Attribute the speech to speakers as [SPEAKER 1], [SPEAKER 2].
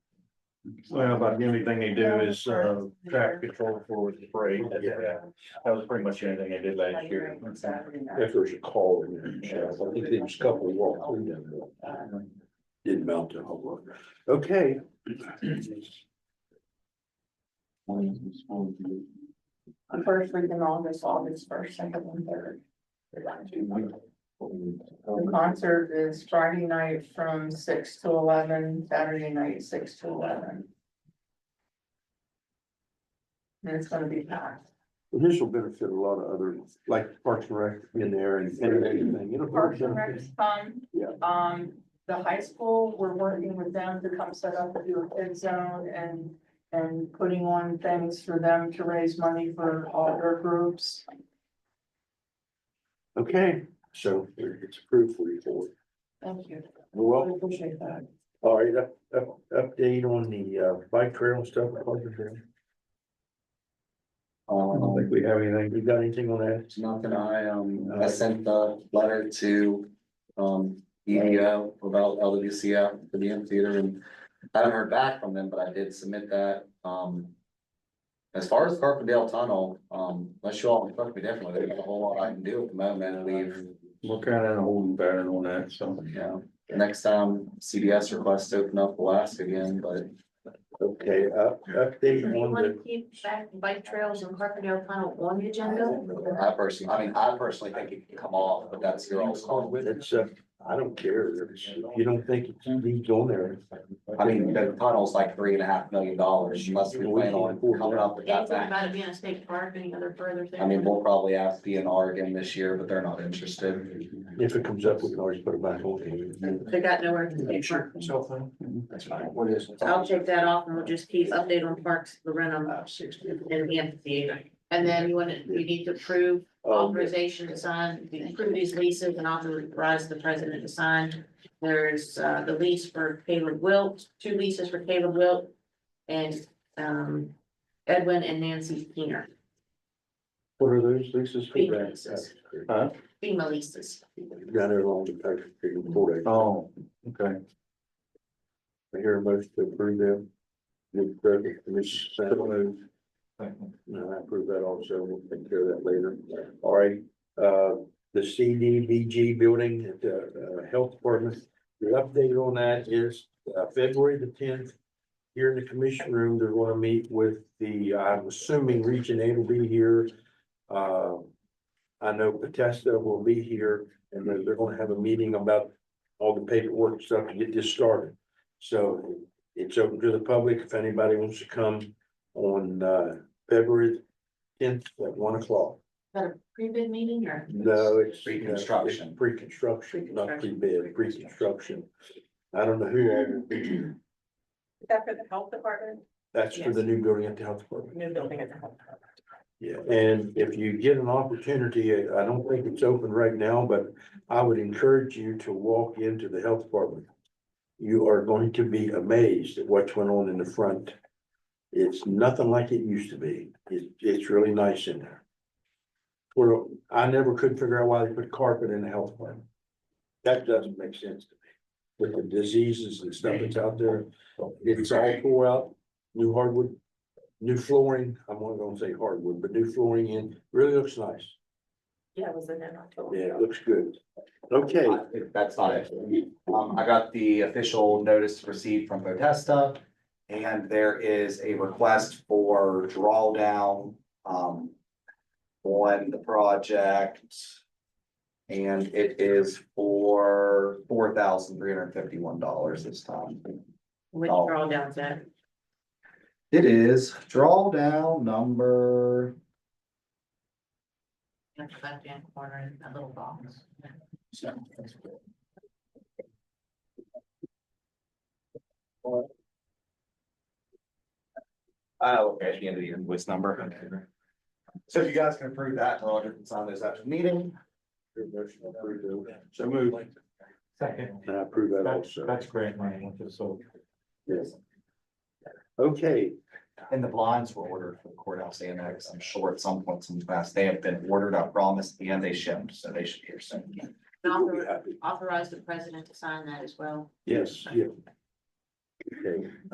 [SPEAKER 1] Well, about the only thing they do is, uh, track control for the parade.
[SPEAKER 2] Yeah.
[SPEAKER 1] That was pretty much the only thing they did last year.
[SPEAKER 2] If there's a call in there, Sheriff, I think there was a couple walked through them, but didn't mount to a whole lot. Okay.
[SPEAKER 3] On first week in August, August first, second and third. The concert is Friday night from six to eleven, Saturday night, six to eleven. And it's gonna be packed.
[SPEAKER 2] This will benefit a lot of other, like Parks and Rec in there and and everything. It'll
[SPEAKER 3] Parks and Rec
[SPEAKER 2] benefit.
[SPEAKER 3] is fun.
[SPEAKER 2] Yeah.
[SPEAKER 3] Um, the high school, we're working with them to come set up a new kid zone and, and putting on things for them to raise money for all their groups.
[SPEAKER 2] Okay, so it's approved for you for.
[SPEAKER 3] Thank you. I
[SPEAKER 2] Well,
[SPEAKER 3] appreciate that.
[SPEAKER 2] all right, up, up, update on the uh, bike trail and stuff. Parks and Rec.
[SPEAKER 1] I don't
[SPEAKER 2] Oh.
[SPEAKER 1] think
[SPEAKER 4] Um,
[SPEAKER 1] we have anything.
[SPEAKER 2] You got anything on that?
[SPEAKER 4] it's nothing, I, um, I sent the letter to, um, EDO about LWCF for the amphitheater and I haven't heard back from them, but I did submit that, um. As far as Carpendale Tunnel, um, unless you all instruct me differently, there's not a whole lot I can do at the moment, we've,
[SPEAKER 1] We're kind of in a holding pattern on that, so.
[SPEAKER 4] you know, the next time CBS requests to open up, we'll ask again, but.
[SPEAKER 2] Okay, uh, update
[SPEAKER 5] Do you
[SPEAKER 2] on
[SPEAKER 5] want to
[SPEAKER 2] the,
[SPEAKER 5] keep back bike trails and Carpendale Tunnel on the agenda?
[SPEAKER 4] I personally, I mean, I personally think it can come off, but that's your all's call.
[SPEAKER 2] it's, uh, I don't care. If you don't think it needs on there.
[SPEAKER 4] I mean, the tunnel's like three and a half million dollars, you must be planning on coming up with that
[SPEAKER 5] Anything
[SPEAKER 4] back.
[SPEAKER 5] about it being a state park, any other further thing?
[SPEAKER 4] I mean, we'll probably ask DNR again this year, but they're not interested.
[SPEAKER 2] If it comes up, we can always put it back on.
[SPEAKER 5] They got nowhere to take park.
[SPEAKER 4] That's fine. What is? it?
[SPEAKER 5] I'll take that off and we'll just keep update on parks, the Renum
[SPEAKER 4] Uh,
[SPEAKER 5] and the amphitheater. And then you want to, you need to approve
[SPEAKER 4] Oh,
[SPEAKER 2] Um,
[SPEAKER 5] authorization to sign, approve these leases and authorize the president to sign. There's uh the lease for Caleb Wilt, two leases for Caleb Wilt and um Edwin and Nancy Keener,
[SPEAKER 2] What are those leases? for?
[SPEAKER 5] FEMA leases.
[SPEAKER 1] Huh?
[SPEAKER 5] FEMA leases.
[SPEAKER 2] Down there along the Patrick Creek border.
[SPEAKER 1] Oh, okay.
[SPEAKER 2] I hear a motion to approve them. New president, Commissioner Sanders. No, I approve that also. We'll take care of that later. All right, uh, the CDBG building at the uh, Health Department. The update on that is uh, February the tenth. Here in the commission room, they're going to meet with the, I'm assuming Region A will be here. Uh, I know Potesta will be here and they're, they're going to have a meeting about all the paperwork and stuff to get this started. So it's open to the public if anybody wants to come on uh February tenth at one o'clock.
[SPEAKER 5] Got a pre-bid meeting or?
[SPEAKER 2] No, it's.
[SPEAKER 4] Pre-construction.
[SPEAKER 2] it's Pre-construction, not
[SPEAKER 5] Pre-construction.
[SPEAKER 2] pre-bid, pre-construction. I don't know who all will be here.
[SPEAKER 3] Is that for the health department?
[SPEAKER 2] That's for the new building at the health department.
[SPEAKER 3] New building at the health department.
[SPEAKER 2] Yeah, and if you get an opportunity, I don't think it's open right now, but I would encourage you to walk into the health department. You are going to be amazed at what's went on in the front. It's nothing like it used to be. It, it's really nice in there. Well, I never could figure out why they put carpet in the health department. That doesn't make sense to me. With the diseases and stuff that's out there, it's all tore out, new hardwood new flooring, I'm not gonna say hardwood, but new flooring in, really looks nice.
[SPEAKER 3] Yeah, it was in October.
[SPEAKER 2] Yeah, it looks good. Okay,
[SPEAKER 4] That's not it. Um, I got the official notice to proceed from Potesta. And there is a request for drawdown, um. On the project. And it is for four thousand three hundred fifty-one dollars this time.
[SPEAKER 5] Which
[SPEAKER 4] Oh.
[SPEAKER 5] drawdown's that?
[SPEAKER 4] It is drawdown number,
[SPEAKER 5] In the left-hand corner, in that little box.
[SPEAKER 4] oh, okay, at the end of the invoice number. So if you guys can approve that, then I'll just sign those after the meeting.
[SPEAKER 1] So move.
[SPEAKER 6] Second,
[SPEAKER 2] and I approve that
[SPEAKER 6] that's,
[SPEAKER 2] also.
[SPEAKER 6] that's great money, which is so.
[SPEAKER 2] Yes. Okay,
[SPEAKER 4] And the blinds were ordered for the courthouse annex. I'm sure at some point in the past, they have been ordered, I promise, and they shipped, so they should be here soon.
[SPEAKER 5] And
[SPEAKER 2] you'll be
[SPEAKER 5] author-
[SPEAKER 2] happy.
[SPEAKER 5] Authorize the president to sign that as well.
[SPEAKER 2] Yes, yeah. Okay.